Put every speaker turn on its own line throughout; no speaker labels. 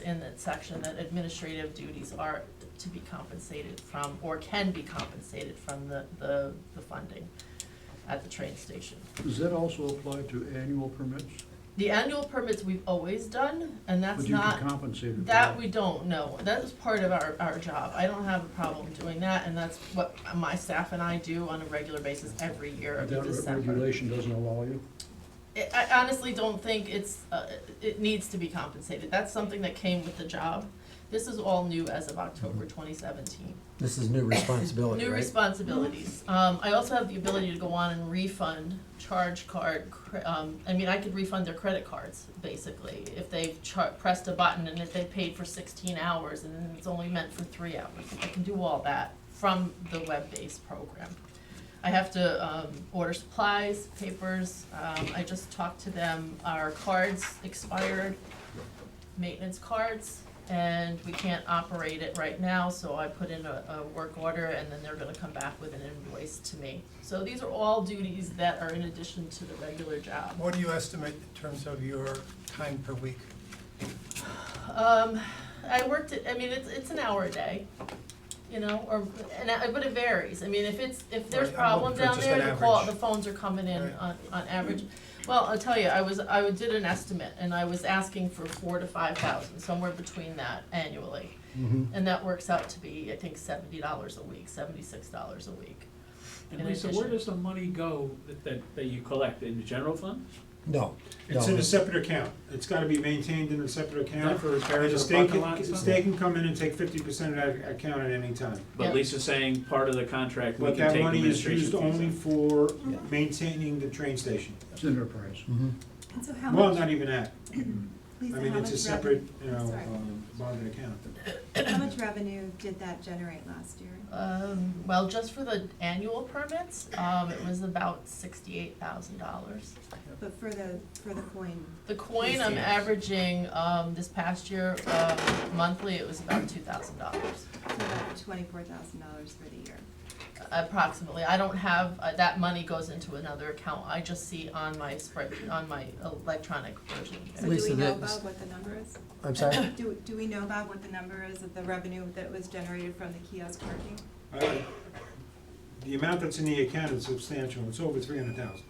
in that section that administrative duties are to be compensated from, or can be compensated from the, the, the funding at the train station.
Does that also apply to annual permits?
The annual permits we've always done, and that's
Would you
not.
be compensated for that?
That we don't know. That is part of our, our job. I don't have a problem doing that, and that's what my staff and I do on a regular basis every year of
That re-
December.
regulation doesn't allow you?
I I honestly don't think it's, uh, it needs to be compensated. That's something that came with the job. This is all new as of October twenty seventeen.
This is new responsibility,
New
right?
responsibilities. Um, I also have the ability to go on and refund charge card, cre- um, I mean, I could refund their credit cards, basically. If they've char- pressed a button and if they paid for sixteen hours and then it's only meant for three hours. I can do all that from the web-based program. I have to, um, order supplies, papers, um, I just talked to them, our cards expired, maintenance cards, and we can't operate it right now, so I put in a, a work order, and then they're gonna come back with an invoice to me. So these are all duties that are in addition to the regular job.
What do you estimate in terms of your time per week?
Um, I worked it, I mean, it's, it's an hour a day, you know, or, and, I- but it varies, I mean, if it's, if there's
Right, I'm
problem
looking for
down
just
there,
an
the call, the
average.
phones are coming in
Right.
on, on average. Well, I'll tell you, I was, I did an estimate, and I was asking for four to five thousand, somewhere between that annually.
Mm-hmm.
And that works out to be, I think, seventy dollars a week, seventy-six dollars a week.
And
In
Lisa, where
addition-
does the money go that- that, that you collect, in the general fund?
No,
It's in
no,
a separate account, it's gotta be maintained in a separate
Not
account.
for repairs
And the
or
state
parking lot and
can, the
stuff?
state can come in and take fifty percent of that account at any time.
Yeah.
But Lisa's saying part of the contract, we
But
can
that
take
money is
administration fees
used only
out.
for maintaining the train station.
It's enterprise.
mhm.
And so how
Well,
much,
not even that,
Lisa,
I
how
mean,
much
it's a
revenue,
separate, you know,
Sorry.
um, bonded account.
how much revenue did that generate last year?
Um, well, just for the annual permits, um, it was about sixty-eight thousand dollars.
But for the, for the coin,
The coin, I'm averaging, um, this past year, um, monthly, it was about two thousand dollars,
so about twenty-four thousand dollars for the year.
approximately. I don't have, uh, that money goes into another account, I just see on my spread, on my electronic version.
So do
Lisa,
we know,
that's-
Bob, what the number is?
I'm sorry?
Do, do we know, Bob, what the number is of the revenue that was generated from the kiosk parking?
Uh, The amount that's in the account is substantial, it's over three hundred thousand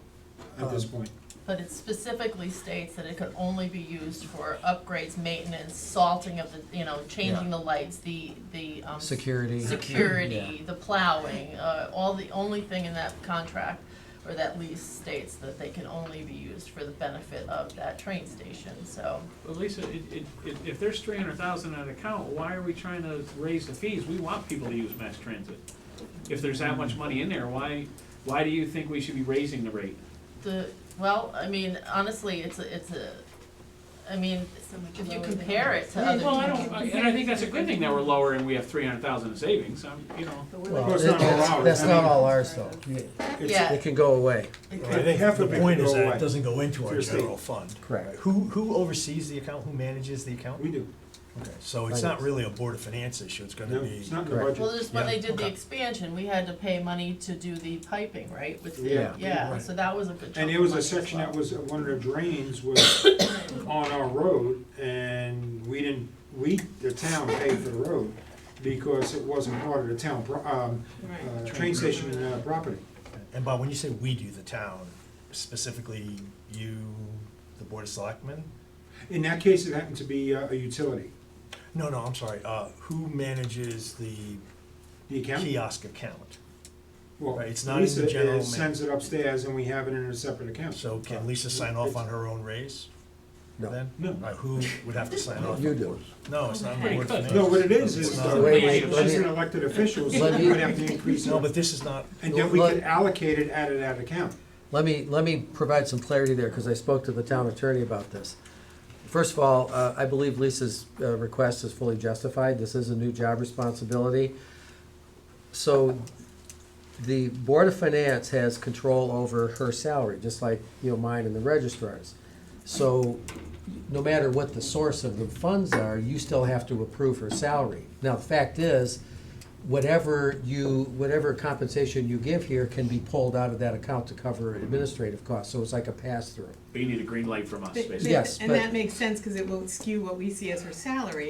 at this
Um,
point.
But it specifically states that it could only be used for upgrades, maintenance, salting of the, you know, changing the
Yeah.
lights, the, the, um.
Security.
Security, the plowing, uh, all the, only thing in that contract or that lease states that they can only be used for the benefit of that train station, so.
But Lisa, it, it, it- if there's three hundred thousand in an account, why are we trying to raise the fees? We want people to use mass transit. If there's that much money in there, why, why do you think we should be raising the rate?
The, well, I mean, honestly, it's a, it's a, I mean,
So much
if you
lower than-
compare it to other.
Well, I don't, I- and I think that's a good thing that we're lower and we have three hundred thousand in savings, I'm, you know.
But we're
Well,
course,
like-
not all
that's,
ours.
that's
I
not
mean-
all ours though. You-
It's-
Yeah.
It can go away.
Right, They have to
The
make
point
it
is
go
that
away.
it doesn't go into
To
our
your state.
general fund.
Correct.
right? Who, who oversees the account, who manages the account?
We do,
Okay, so it's
Right.
not really a Board of Finance issue, it's gonna
no,
be,
it's not in the
Correct.
budget.
Well, just when
Yeah,
they did the
okay.
expansion, we had to pay money to do the piping, right, with the,
Yeah.
yeah,
Right.
so that was a good chunk
And there
of
was
money
a
as
section that
well.
was, one of the drains was on our road, and we didn't, we, the town paid for the road, because it wasn't part of the town, pro- um, uh, train station uh, property.
and Bob, when you say we do the town, specifically you, the Board of Selectmen?
In that case, it happened to be uh, a utility,
No, no, I'm sorry, uh, who manages the
the account.
kiosk account?
Well,
Right, it's not in the general
Lisa
ma-
is- sends it upstairs, and we have it in a separate account.
So can Lisa sign off on her own raise?
No.
Then?
No.
Right, wwho would have to sign off?
You do.
No, it's not in the Board of Finance.
No, what it is, is uh,
It's
she's
not.
The way
we-
an elected official, so
Let
we
me-
would have to increase
No,
it,
but this is not,
and then we could allocate it out of that account.
Let me, let me provide some clarity there, because I spoke to the town attorney about this. First of all, uh, I believe Lisa's uh, request is fully justified. This is a new job responsibility. So the Board of Finance has control over her salary, just like, you know, mine and the registrar's. So no matter what the source of the funds are, you still have to approve her salary. Now, the fact is, whatever you, whatever compensation you give here can be pulled out of that account to cover administrative costs, so it's like a pass-through.
But you need a green light from us,
But-
basically.
but-
Yes,
And
but-
that makes sense, because it will skew what we see as her salary,